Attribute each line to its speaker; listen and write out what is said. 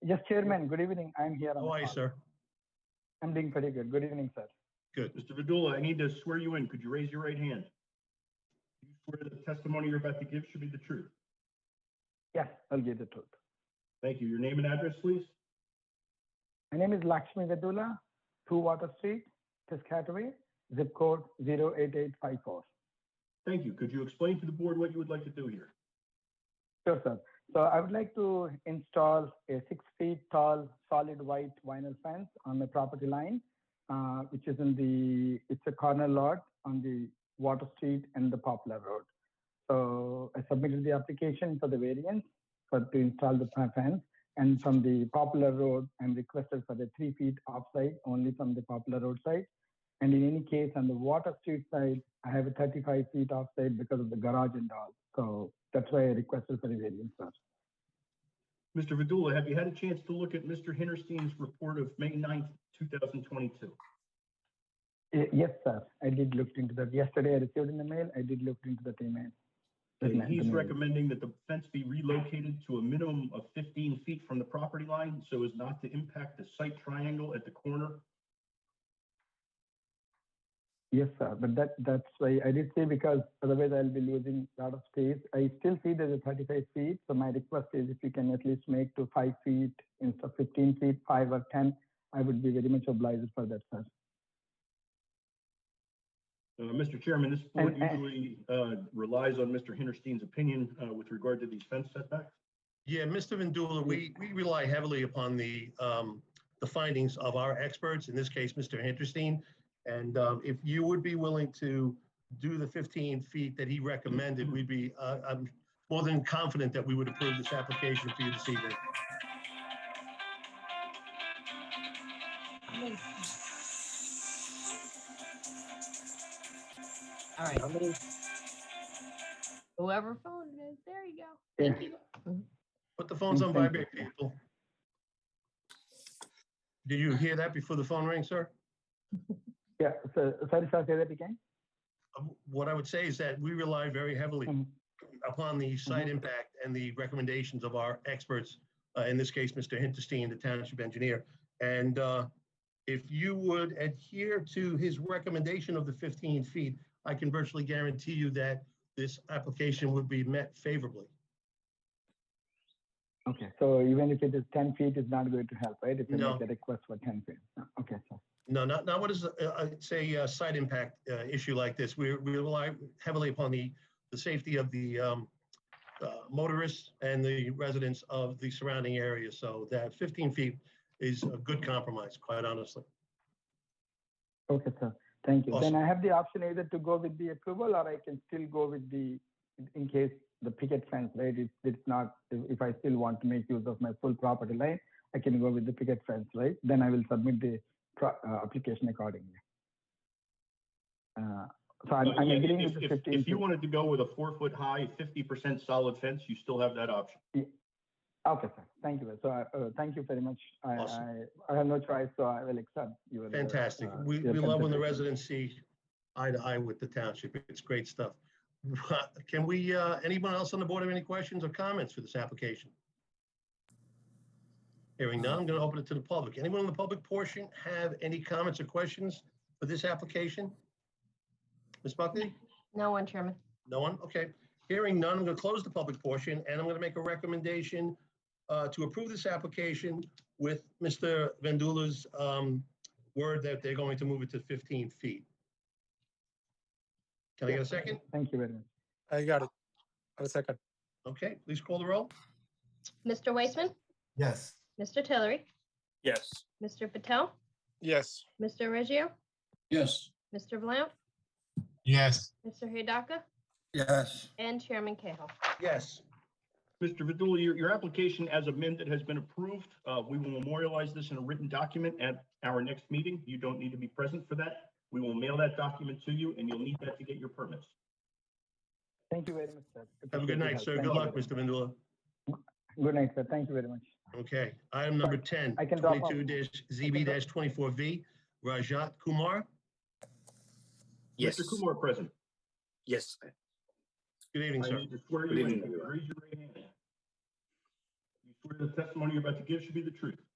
Speaker 1: Yes, Chairman, good evening. I'm here. on
Speaker 2: How
Speaker 1: the
Speaker 2: are you,
Speaker 1: call.
Speaker 2: Oh, sir?
Speaker 1: I'm doing pretty good. Good evening, sir.
Speaker 2: Good.
Speaker 3: Mr. Vidula, I need to swear you in. Could you raise your right hand? Do You swear the testimony you're about to give should be the truth.
Speaker 1: Yes, I'll give the truth.
Speaker 3: Thank you. Your name and address, please?
Speaker 1: My name is Lakshmi Vedula, 2 Water Street, Piscataway, zip code 08854.
Speaker 3: Thank you. Could you explain to the board what you would like to do here?
Speaker 1: Sure, sir. So I would like to install a six feet tall solid white vinyl fence on the property line, uh, which is in the, it's a corner lot on the Water Street and the Poplar Road. So I submitted the application for the variance for to install the fe- fence. And from the Poplar Road, I'm requested for the three feet offside, only from the Poplar Road side. And in any case, on the Water Street side, I have a 35 feet offside because of the garage and all. So that's why I requested for a variance, sir.
Speaker 3: Mr. Vidula, have you had a chance to look at Mr. Hinterstein's report of May 9th, 2022?
Speaker 1: Y- Yes, sir. I did look into that. Yesterday, I received in the mail. I did look into that email. That
Speaker 3: And
Speaker 1: meant
Speaker 3: he's
Speaker 1: to me.
Speaker 3: recommending that the fence be relocated to a minimum of 15 feet from the property line so as not to impact the site triangle at the corner.
Speaker 1: Yes, sir. But that that's why I did say because otherwise I'll be losing a lot of space. I still see there's a 35 feet. So my request is if you can at least make to five feet instead of 15 feet, five or 10, I would be very much obliged for that, sir.
Speaker 3: Uh, Mr. Chairman, this board
Speaker 1: And- and-
Speaker 3: usually uh, relies on Mr. Hinterstein's opinion uh, with regard to these fence setbacks.
Speaker 2: Yeah, Mr. Vindula, we, we rely heavily upon the, um, the findings of our experts, in this case, Mr. Hinterstein. And, um, if you would be willing to do the 15 feet that he recommended, we'd be, uh, I'm more than confident that we would approve this application for you this evening.
Speaker 4: All right, I'm gonna- Whoever phone it is, there you go.
Speaker 1: Yeah.
Speaker 2: Put the phones on
Speaker 1: Thank you.
Speaker 2: vibrate, people. Did you hear that before the phone rang, sir?
Speaker 1: Yeah. So, sorry, sir. Say that again.
Speaker 2: Um, What I would say is that we rely very heavily
Speaker 1: Mhm.
Speaker 2: upon the site
Speaker 1: Mhm.
Speaker 2: impact and the recommendations of our experts, uh, in this case, Mr. Hinterstein, the township engineer. And uh, if you would adhere to his recommendation of the 15 feet, I can virtually guarantee you that this application would be met favorably.
Speaker 1: Okay, so even if it is ten feet, it's not going to help, right? If you
Speaker 2: No.
Speaker 1: make a request for ten feet. No, Okay, so,
Speaker 2: No, not, not what is, uh, uh, say, a site impact uh, issue like this. We we rely heavily upon the, the safety of the um, uh, motorists and the residents of the surrounding area. So that 15 feet is a good compromise, quite honestly.
Speaker 1: okay, sir, thank you. Then
Speaker 2: Awesome.
Speaker 1: I have the option either to go with the approval or I can still go with the, in case the picket fence, right? It's, it's not, if if I still want to make use of my full property line, I can go with the picket fence, right? Then I will submit the pro- uh, application accordingly. Uh, So I'm, I'm
Speaker 3: Yeah, if-
Speaker 1: agreeing with the
Speaker 3: if-
Speaker 1: fifteen
Speaker 3: If you
Speaker 1: feet.
Speaker 3: wanted to go with a four-foot-high, 50% solid fence, you still have that option.
Speaker 1: Okay, sir, thank you. So, I- uh, thank you very much. I,
Speaker 2: Awesome.
Speaker 1: I, I have no choice, so I will accept your. uh,
Speaker 2: Fantastic.
Speaker 1: uh,
Speaker 2: We,
Speaker 1: your
Speaker 2: we love when the
Speaker 1: consideration.
Speaker 2: residents see eye to eye with the township. It's great stuff. Can we, uh, anyone else on the board have any questions or comments for this application? Hearing none, I'm going to open it to the public. Anyone in the public portion have any comments or questions for this application? Ms. Buckley?
Speaker 4: No one, Chairman.
Speaker 2: No one? Okay. Hearing none, I'm going to close the public portion and I'm going to make a recommendation uh, to approve this application with Mr. Vandula's um, word that they're going to move it to 15 feet. Can I get a second?
Speaker 1: Thank you very much.
Speaker 5: I got it. A second.
Speaker 2: Okay, please call the roll.
Speaker 6: Mr. Weissman,
Speaker 7: Yes.
Speaker 6: Mr. Tillery,
Speaker 5: Yes.
Speaker 6: Mr. Patel,
Speaker 5: Yes.
Speaker 6: Mr. Reggio,
Speaker 7: Yes.
Speaker 6: Mr. Blount,
Speaker 7: Yes.
Speaker 6: Mr. Hidaka,
Speaker 7: Yes.
Speaker 6: and Chairman Cahill.
Speaker 2: Yes.
Speaker 3: Mr. Vidula, your, your application as amended has been approved. Uh, We will memorialize this in a written document at our next meeting. You don't need to be present for that. We will mail that document to you, and you'll need that to get your permits.
Speaker 1: Thank you very much, sir.
Speaker 2: Have a
Speaker 1: Appreciate your
Speaker 2: good night,
Speaker 1: help.
Speaker 2: sir.
Speaker 1: Thank
Speaker 2: Good
Speaker 1: you
Speaker 2: luck,
Speaker 1: very
Speaker 2: Mr. Vandula.
Speaker 1: much. Good night, sir. Thank you very much.
Speaker 2: Okay, item number 10,
Speaker 1: I can drop off.
Speaker 2: 22-ZB-24V, Rajat Kumar.
Speaker 3: Mr. Kumar, present.
Speaker 5: Yes.
Speaker 2: Good evening,
Speaker 3: I
Speaker 2: sir.
Speaker 3: need to swear
Speaker 8: Good
Speaker 3: you in.
Speaker 8: evening, everyone.
Speaker 3: Raise your right hand. You swear swear the testimony you're about to give should be the truth,